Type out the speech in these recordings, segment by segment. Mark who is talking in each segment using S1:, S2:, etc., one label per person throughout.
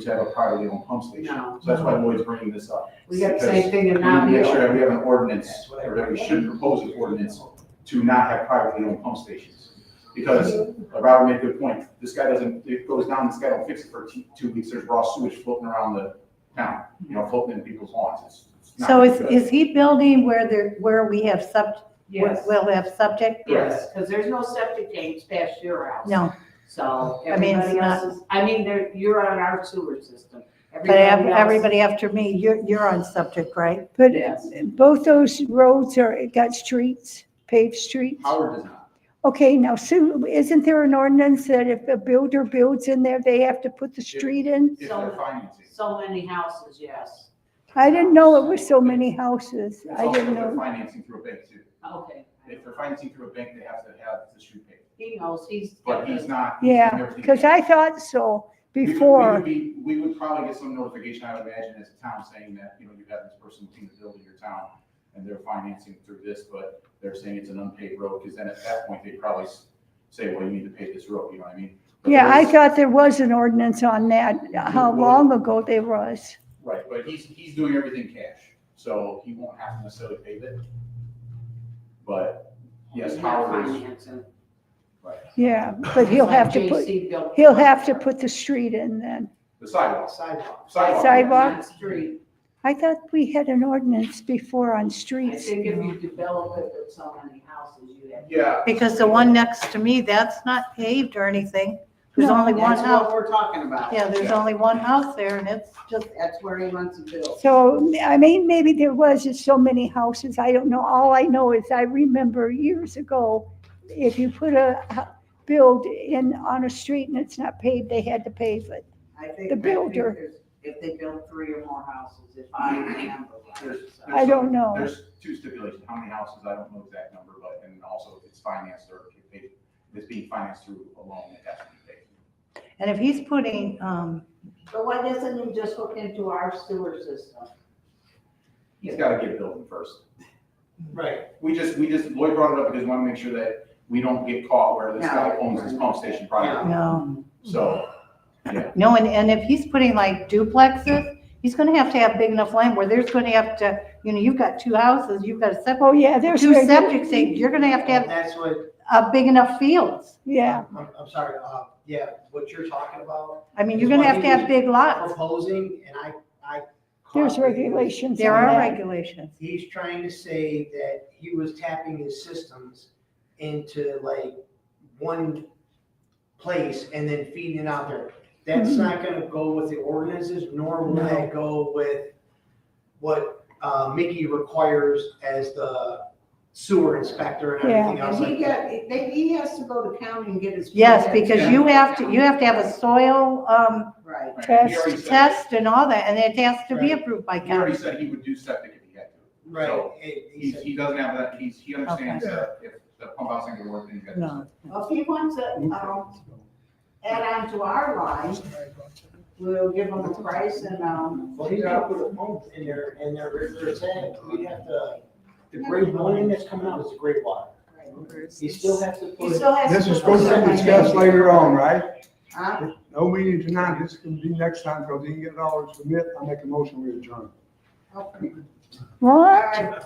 S1: to have a privately owned pump station.
S2: No.
S1: So that's why Lloyd's bringing this up.
S2: We got the same thing in
S1: We need to make sure that we
S2: Mount
S1: have an ordinance, or that we should propose an ordinance to not have privately owned pump stations. Because uh, Robert made a good point, this guy doesn't, it goes down, this guy don't fix it for two, two weeks, there's raw sewage floating around the town, you know, floating in people's lawns. It's- it's not
S3: So is,
S1: good.
S3: is he building where there, where we have sub,
S2: Yes,
S3: will have subject?
S2: yes, because there's no septic tanks past your house.
S3: No,
S2: So
S3: I mean, it's
S2: everybody
S3: not-
S2: else is, I mean, there, you're on our sewer system.
S3: but ev-
S2: else-
S3: everybody after me, you're, you're on subject, right?
S4: But
S2: Yes.
S4: both those roads are, got streets, paved streets?
S1: Howard does not.
S4: Okay, now Sue, isn't there an ordinance that if a builder builds in there, they have to put the street in?
S1: If they're financing.
S2: So many houses, yes.
S4: I didn't know it was so many houses.
S1: It's
S4: I
S1: also
S4: didn't
S1: if they're
S4: know.
S1: financing through a bank too.
S2: Okay.
S1: If they're financing through a bank, they have to have the street paved.
S2: He knows, he's.
S1: But he's not. he's doing
S4: Yeah,
S1: everything.
S4: because I thought so
S1: We would- we would
S4: before.
S1: be- We would probably get some notification, I would imagine, as a town saying that, you know, you have this person looking to build in your town and they're financing through this, but they're saying it's an unpaid road, because then at that point, they probably s- say, well, you need to pay this road, you know what I mean? But
S4: Yeah, I
S1: there's-
S4: thought there was an ordinance on that, how long ago there was.
S1: Right, but he's, he's doing everything cash, so he won't have to necessarily pay it. But yes,
S2: he's not
S1: Howard is,
S2: financing.
S1: right,
S4: Yeah, but he'll
S2: It's like
S4: have to put,
S2: JC built-
S4: he'll have to put the street in then.
S1: the sidewalks,
S2: Sidewalk.
S1: sidewalk.
S4: Sidewalk?
S2: Not Street.
S4: I thought we had an ordinance before on
S2: I
S4: streets.
S2: think if you develop it with so many houses, you have.
S1: Yeah.
S3: Because the one next to me, that's not paved or anything. There's
S4: No.
S3: only one
S2: That's what
S3: house.
S2: we're talking about.
S3: Yeah, there's
S1: Yeah.
S3: only one house there and it's just,
S2: That's where he wants to build.
S4: So, I mean, maybe there was just so many houses, I don't know, all I know is I remember years ago, if you put a hu- build in on a street and it's not paved, they had to pave it.
S2: I think.
S4: The
S2: I think
S4: builder.
S2: there's- If they build three or more houses, if I remember right. so.
S4: I don't know.
S1: There's two stipulations, how many houses, I don't know exact number, but, and also if it's financed or if they, if it's being financed through a loan, it has to be paid.
S3: and if he's putting, um,
S2: But why doesn't he just hook into our sewer system?
S1: He's gotta get building first.
S2: Right.
S1: We just, we just, Lloyd brought it up because we wanna make sure that we don't get caught where this guy owns his pump station property.
S3: no,
S1: So,
S3: no, and, and if he's putting like duplexes, he's gonna have to have big enough land where there's gonna have to, you know, you've got two houses, you've got a
S4: Oh,
S3: septic,
S4: yeah, there's.
S3: two
S4: where the-
S3: septic things, you're gonna have to have,
S5: That's what,
S3: uh, big enough fields.
S4: Yeah,
S5: I'm, I'm sorry, uh, yeah, what you're talking about,
S3: I mean, you're gonna have to have big lots.
S5: proposing, and I, I.
S4: there's regulations
S3: There
S4: on
S3: are
S4: that.
S3: regulations.
S5: He's trying to say that he was tapping his systems into like one place and then feeding it out there. That's not gonna go with the ordinances, nor will that go with what, uh, Mickey requires as the sewer inspector and
S2: And
S5: everything else
S2: he
S5: like that.
S2: got, they, he has to go to county and get his.
S3: Yes,
S2: permit.
S3: because you have to, you have to have a soil, um,
S2: Right.
S1: right, he already said-
S3: test and all that, and it has to be approved by
S1: He already
S3: county.
S1: said he would do septic if he had to.
S5: Right,
S1: So,
S5: and he
S1: He,
S5: said-
S1: he doesn't have that, he's, he understands
S5: Okay.
S1: that if the pump house ain't gonna work, then you gotta. do
S3: No.
S1: something.
S2: Well, if he wants to, um, add on to our line, we'll give him a price and, um,
S5: Well, he's gotta put a pump in there, and they're, they're saying, we have to, the grade one thing that's coming out is the grade water. You still have to
S2: he
S5: put,
S2: still has.
S6: This
S2: put
S6: is supposed to be discussed later on, right?
S2: Huh?
S6: No meeting tonight, this can be next time, because he can get all his permit, I make a motion we adjourn.
S2: Okay. All
S4: What?
S2: right.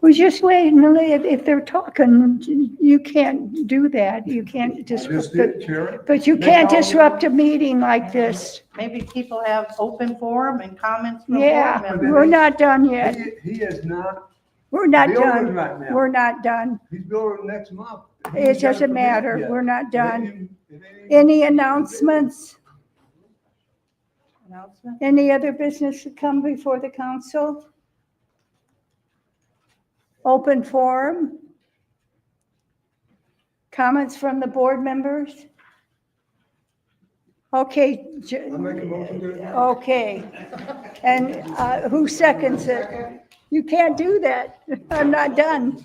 S4: We're just waiting, if, if they're talking, you can't do that, you can't
S6: I
S4: disrupt,
S6: just
S4: the-
S6: did, Chair.
S4: but you can't disrupt a meeting like this.
S3: Maybe people have open forum and comments from board
S4: Yeah,
S3: members.
S4: we're not done
S6: He,
S4: yet,
S6: he is not
S4: we're not
S6: building
S4: done,
S6: right now.
S4: we're not done.
S6: He's building next month. He
S4: It
S6: ain't got a
S4: doesn't
S6: permit
S4: matter,
S6: yet.
S4: we're not done.
S6: It ain't- it ain't-
S4: Any announcements?
S3: Announcement?
S4: Any other business to come before the council? Open forum? Comments from the board members? Okay. J-
S6: I make a motion to adjourn.
S4: Okay. And uh, who seconds it? You can't do that. I'm not done.